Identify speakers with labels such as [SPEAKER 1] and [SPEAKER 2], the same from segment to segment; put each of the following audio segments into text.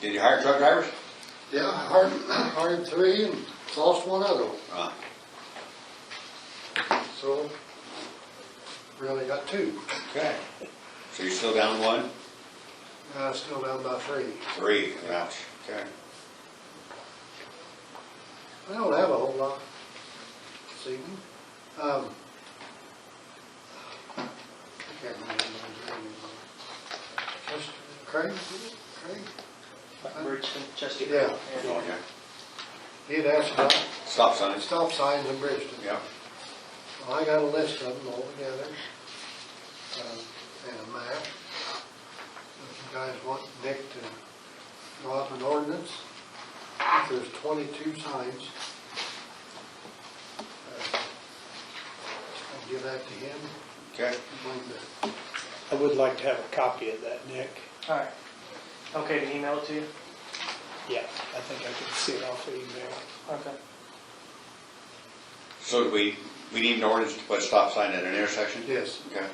[SPEAKER 1] Did you hire truck drivers?
[SPEAKER 2] Yeah, I hired, hired three and lost one other one,
[SPEAKER 1] Uh,
[SPEAKER 2] so really got two.
[SPEAKER 1] Okay. So you're still down one?
[SPEAKER 2] I still down by three.
[SPEAKER 1] Three, ouch. Okay.
[SPEAKER 2] I don't have a whole lot this evening. Um, I can't remember his name anymore. Just Craig, is it? Craig?
[SPEAKER 3] Bridgeton, Chester.
[SPEAKER 2] Yeah.
[SPEAKER 1] Oh, yeah.
[SPEAKER 2] He'd asked about
[SPEAKER 1] Stop signs.
[SPEAKER 2] stop signs in Bridgeton.
[SPEAKER 1] Yeah.
[SPEAKER 2] Well, I got a list of them all together, um, and a map. If you guys want Nick to draw up an ordinance, there's twenty-two signs. Uh, I'll give that to him,
[SPEAKER 1] Okay.
[SPEAKER 2] bring the,
[SPEAKER 4] I would like to have a copy of that, Nick.
[SPEAKER 3] All right. Okay, to email it to you?
[SPEAKER 4] Yeah, I think I can see it off the email.
[SPEAKER 3] Okay.
[SPEAKER 1] So do we, we need an ordinance to put a stop sign at an intersection?
[SPEAKER 2] yes,
[SPEAKER 1] Okay.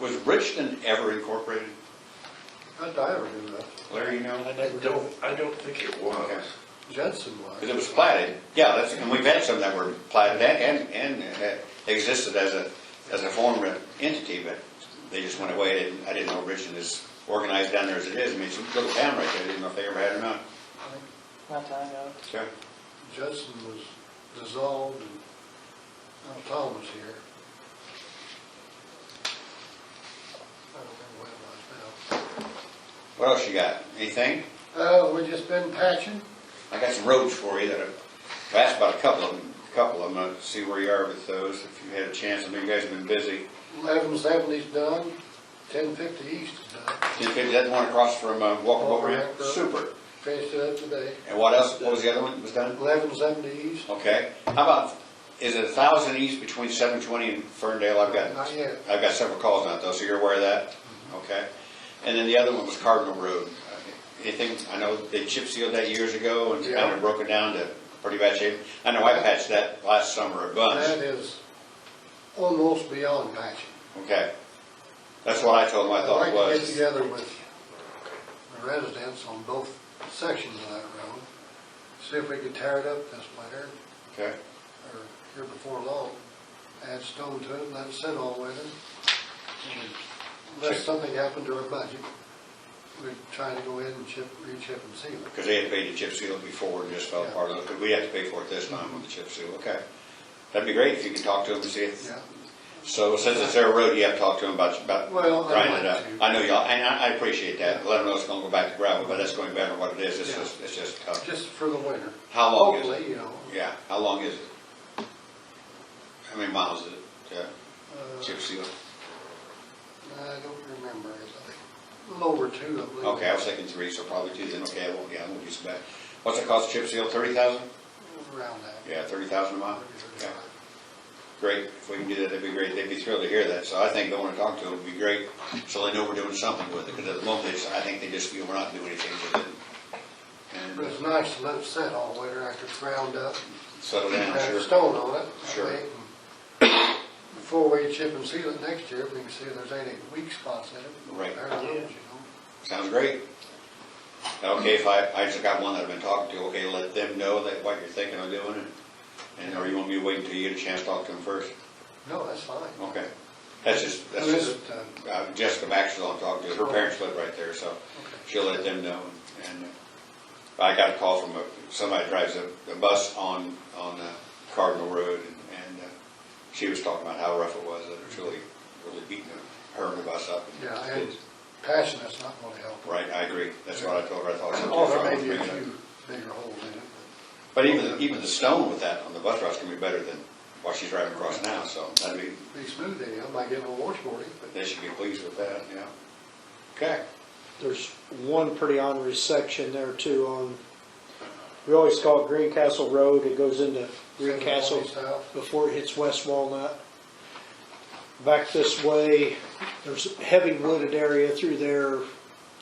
[SPEAKER 1] Was Bridgeton ever incorporated?
[SPEAKER 2] I'd die or do that.
[SPEAKER 1] Larry, you know?
[SPEAKER 4] I never did.
[SPEAKER 5] Don't, I don't think it
[SPEAKER 1] Okay.
[SPEAKER 5] was.
[SPEAKER 2] Judson was.
[SPEAKER 1] Because it was platted, yeah, that's, and we've had some that were platted and, and, and that existed as a, as a form of entity, but they just went away, I didn't, I didn't know Richmond is organized down there as it is, I mean, it's a little town right there, I didn't know if they ever had or not.
[SPEAKER 2] I think
[SPEAKER 3] Not that I know.
[SPEAKER 1] Okay.
[SPEAKER 2] Judson was dissolved and, now Tom was here. I don't remember what it was now.
[SPEAKER 1] What else you got, anything?
[SPEAKER 2] Uh, we just been patching.
[SPEAKER 1] I got some roads for you that I've I've asked about a couple of them, a couple of them, I'll see where you are with those, if you had a chance, I know you guys have been busy.
[SPEAKER 2] Eleven seventy's done, ten fifty east is done.
[SPEAKER 1] Ten fifty, that one across from uh, Walker Boat Ramp,
[SPEAKER 2] Walker Boat Ramp.
[SPEAKER 1] super,
[SPEAKER 2] Finished it up today.
[SPEAKER 1] and what else, what was the other one that was done?
[SPEAKER 2] Eleven seventy east,
[SPEAKER 1] Okay, how about, is it a thousand east between seven twenty and Ferndale? I've got,
[SPEAKER 2] Not yet.
[SPEAKER 1] I've got several calls on it though, so you're aware of that?
[SPEAKER 2] Mm-hmm.
[SPEAKER 1] Okay. And then the other one was Cardinal Road. Anything, I know they chip sealed that years ago and it's kind
[SPEAKER 2] Yeah.
[SPEAKER 1] of broken down to pretty bad shape. I know I patched that last summer a
[SPEAKER 2] that
[SPEAKER 1] bunch.
[SPEAKER 2] is almost beyond patching.
[SPEAKER 1] Okay. That's what I told them I thought it
[SPEAKER 2] I'd like to get
[SPEAKER 1] was.
[SPEAKER 2] together with the residents on both sections of that road, see if we could tear it up this winter,
[SPEAKER 1] Okay,
[SPEAKER 2] or here before long, add stone to it, and let it sit all winter. And Unless
[SPEAKER 1] Chip.
[SPEAKER 2] something happened to our budget, we'd try to go in and chip, re-chip and seal it.
[SPEAKER 1] because they had paid the chip seal before and just fell
[SPEAKER 2] Yeah.
[SPEAKER 1] apart a little, but we have to pay for it this time with the chip seal, okay. That'd be great if you could talk to them and see if
[SPEAKER 2] Yeah,
[SPEAKER 1] So since it's their road, you have to talk to them about, about
[SPEAKER 2] Well, I'd
[SPEAKER 1] grinding it
[SPEAKER 2] like
[SPEAKER 1] up.
[SPEAKER 2] to.
[SPEAKER 1] I know y'all, and I, I appreciate that, let them know it's gonna go back to gravel, but that's going back to what it is, it's
[SPEAKER 2] Yeah.
[SPEAKER 1] just, it's just tough.
[SPEAKER 2] just for the winter.
[SPEAKER 1] How long is it?
[SPEAKER 2] Hopefully, you know,
[SPEAKER 1] Yeah, how long is it? How many miles is it, uh,
[SPEAKER 2] uh,
[SPEAKER 1] chip seal?
[SPEAKER 2] I don't remember, it's a little over two, I believe.
[SPEAKER 1] Okay, I was thinking three, so probably two, then, okay, well, yeah, we'll do some back. What's it cost, chip seal, thirty thousand?
[SPEAKER 2] Around that.
[SPEAKER 1] Yeah, thirty thousand a mile?
[SPEAKER 2] maybe
[SPEAKER 1] Yeah,
[SPEAKER 2] 35.
[SPEAKER 1] great, if we can do that, that'd be great, they'd be thrilled to hear that, so I think going to talk to them would be great, so they know we're doing something with it, because at the moment, it's- I think they just feel we're not doing anything with it. And- uh,
[SPEAKER 2] But it's nice to let it sit all winter after it's ground up.
[SPEAKER 1] Settle
[SPEAKER 2] Have
[SPEAKER 1] down,
[SPEAKER 2] a
[SPEAKER 1] sure.
[SPEAKER 2] stone on it. that
[SPEAKER 1] Sure.
[SPEAKER 2] way, Before we chip and seal it next year, we can see if there's any weak spots in it.
[SPEAKER 1] Right.
[SPEAKER 2] There are those, you know.
[SPEAKER 1] Sounds great. Okay, if I, I just got one that I've been talking to, okay, let them know that what you're thinking of doing and, and or you want me to wait until you get a chance to talk to them first?
[SPEAKER 2] No, that's fine.
[SPEAKER 1] Okay. That's just, Oh, that's
[SPEAKER 2] Who is
[SPEAKER 1] just,
[SPEAKER 2] it, uh,
[SPEAKER 1] uh, Jessica Maxwell I'm talking to, her parents live right there, so she'll let them know. And uh, I got a call from a, somebody drives a, a bus on, on uh, Cardinal Road and, and uh, she was talking about how rough it was, that it's really, really beating her and the bus up.
[SPEAKER 2] Yeah, and patching that's not gonna help.
[SPEAKER 1] Right, I agree. That's what I told her, I thought. so,
[SPEAKER 2] Oh,
[SPEAKER 1] too, so I
[SPEAKER 2] there
[SPEAKER 1] won't
[SPEAKER 2] may be a
[SPEAKER 1] bring it up.
[SPEAKER 2] few bigger holes in it,
[SPEAKER 1] But even, even the stone with that on the bus route's gonna be better than what she's driving across now, so that'd be,
[SPEAKER 2] but be smooth anyhow, might get a little washboardy, but.
[SPEAKER 1] they should be pleased with that, yeah. Okay,
[SPEAKER 4] There's one pretty honorary section there too on, we always call it Greencastle Road. It goes into Greencastle
[SPEAKER 2] South.
[SPEAKER 4] before it hits West Walnut. Back this way, there's heavy wooded area through there